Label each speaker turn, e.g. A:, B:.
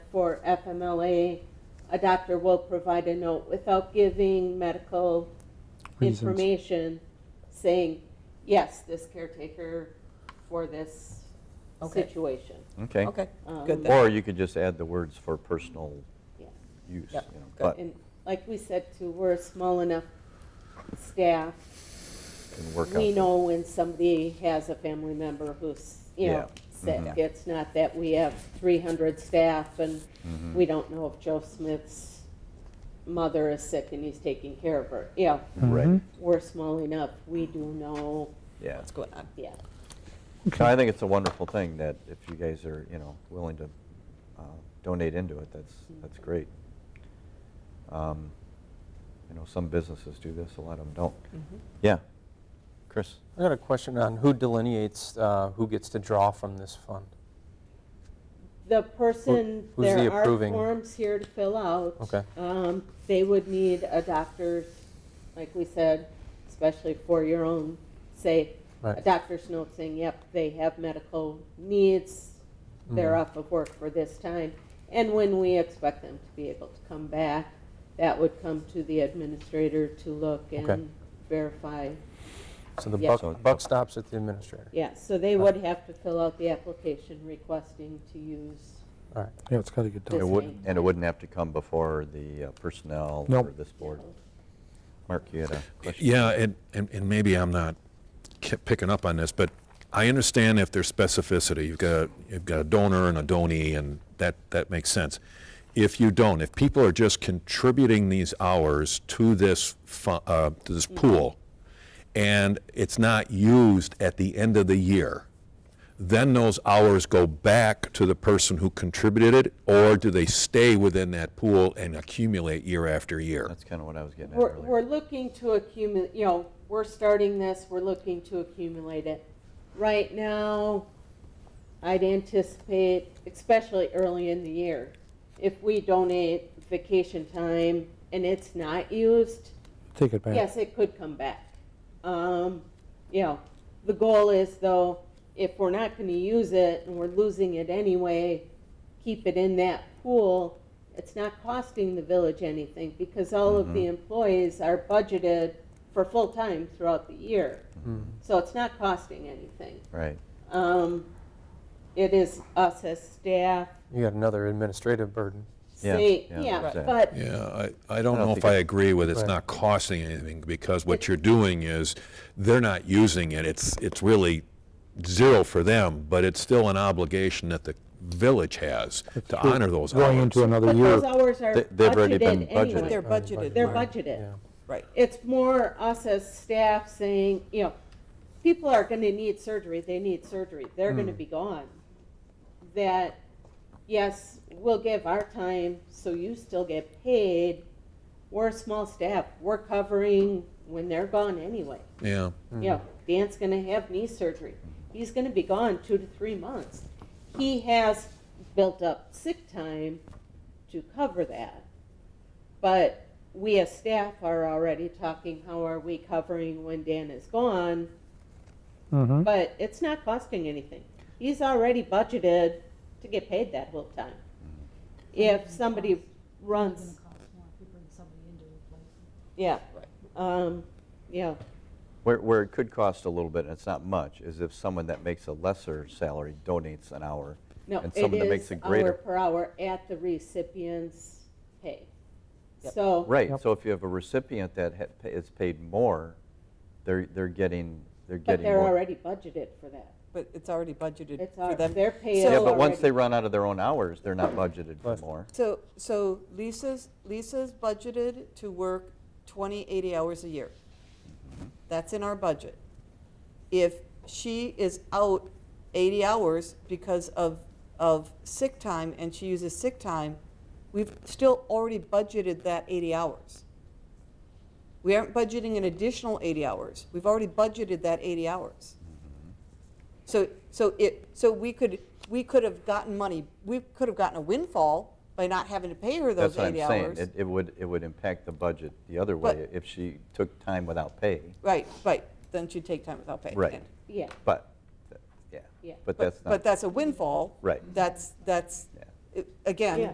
A: for FMLA, a doctor will provide a note without giving medical
B: Reasons.
A: information saying, yes, this caretaker for this
C: Okay.
A: situation.
D: Okay.
C: Okay,
A: Um,
C: good then.
D: Or you could just add the words for personal
A: Yeah.
D: use.
C: Yep,
D: you know,
C: good.
D: But
A: And like we said too, we're a small enough staff.
D: can work out.
A: We
D: the-
A: know when somebody has a family member who's, you
D: Yeah.
A: know, sick.
D: Mhm.
A: It's not that we have three hundred staff and
D: Mhm.
A: we don't know if Joe Smith's mother is sick and he's taking care of her. Yeah,
E: Mm-hmm.
D: Right,
B: Mhm.
A: we're small enough. We do know,
D: Mm-hmm. yeah.
C: what's going on?
A: yeah.
D: So I think it's a wonderful thing that if you guys are, you know, willing to uh, donate into it, that's,
C: Mm-hmm.
D: that's great. Um, You know, some businesses do this, a lot of them don't. Yeah. Chris?
E: I got a question on who delineates uh, who gets to draw from this fund.
A: The person,
E: Who- who's the
A: there are
E: approving?
A: forms here to fill out.
E: Okay.
A: Um, They would need a doctor's, like we said, especially for your own sake, a
E: Right.
A: doctor's note saying, yep, they have medical needs, they're off of work for this time, and when we expect them to be able to come back, that would come to the administrator to look
E: Okay.
A: and verify.
E: So the
A: Yeah.
D: So-
E: buck, buck stops at the administrator.
A: Yeah, so they would have to fill out the application requesting to use
E: All right.
B: Yeah, it's got to get
A: This
D: It
B: done.
D: would,
A: may-
D: and it wouldn't have to come before the uh, personnel or
B: Nope.
D: this board. Mark, you had a question?
F: Yeah, and, and, and maybe I'm not ki- picking up on this, but I understand if there's specificity. You've got, you've got a donor and a donee, and that, that makes sense. If you don't, if people are just contributing these hours to this, fu- uh, to this pool, and it's not used at the end of the year, then those hours go back to the person who contributed it, or do they stay within that pool and accumulate year after year?
D: That's kind of what I was getting at
A: We're,
D: earlier.
A: we're looking to accumulate, you know, we're starting this, we're looking to accumulate it. Right now, I'd anticipate, especially early in the year, if we donate vacation time and it's not used,
B: Take it back.
A: yes, it could come back. Um, you know, the goal is though, if we're not gonna use it and we're losing it anyway, keep it in that pool. It's not costing the village anything because all of the employees are budgeted for full-time throughout the year. So it's not costing anything.
D: Right,
A: Um, it is us as staff,
E: You got another administrative burden.
D: Yeah,
A: say,
D: yeah,
A: yeah,
D: exactly.
A: but
F: Yeah, I, I don't
D: I don't
F: know
D: think
F: if I
D: it-
F: agree with it's
E: Right.
F: not costing anything, because what you're doing is, they're not using it, it's, it's really zero for them, but it's still an obligation that the village has to honor those
B: Going into
F: hours.
B: another
A: But those
B: year.
A: hours are
D: They- they've already been
A: budgeted
C: But
A: anyway.
C: they're
D: Right.
C: budgeted,
A: They're
C: Mark.
A: budgeted.
E: Yeah.
C: right.
A: It's more us as staff saying, you know, people are gonna need surgery, they need surgery, they're gonna be gone. That, yes, we'll give our time, so you still get paid. We're a small staff, we're covering when they're gone anyway.
F: Yeah,
A: You know, Dan's gonna have knee surgery, he's gonna be gone two to three months. He has built up sick time to cover that. But we as staff are already talking, how are we covering when Dan is gone?
B: Mhm.
A: But it's not costing anything. He's already budgeted to get paid that whole time. If somebody runs, yeah, um, yeah,
D: Where, where it could cost a little bit, and it's not much, is if someone that makes a lesser salary donates an hour.
A: no,
D: And
A: it
D: someone that makes
A: is
D: a
A: hour
D: greater.
A: per hour at the recipient's pay.
C: Yep.
A: So.
D: Right,
B: Yep.
D: so if you have a recipient that ha- pa- is paid more, they're, they're getting, they're
A: But
D: getting
A: they're
D: more.
A: already budgeted for that.
C: But it's already budgeted
A: It's
C: for
A: our,
C: them.
A: their pay is
C: So-
D: Yeah,
A: already.
D: but once they run out of their own hours, they're not budgeted for more.
C: So, so Lisa's, Lisa's budgeted to work 20, 80 hours a year. That's in our budget. If she is out 80 hours because of, of sick time and she uses sick time, we've still already budgeted that 80 hours. We aren't budgeting an additional 80 hours. We've already budgeted that 80 hours.
D: Mm-hmm.
C: So, so it, so we could, we could have gotten money, we could have gotten a windfall by not having to pay her
D: That's
C: those
D: what I'm
C: 80
D: saying.
C: hours.
D: It, it would, it would impact the budget the other way
C: But-
D: if she took time without pay.
C: Right, right, then she'd take time without pay.
D: Right.
C: And-
A: Yeah,
D: But, yeah,
A: Yeah.
D: but
C: But,
D: that's not.
C: but that's a windfall.
D: Right.
C: That's, that's,
D: Yeah.
C: it- again,
A: Yeah.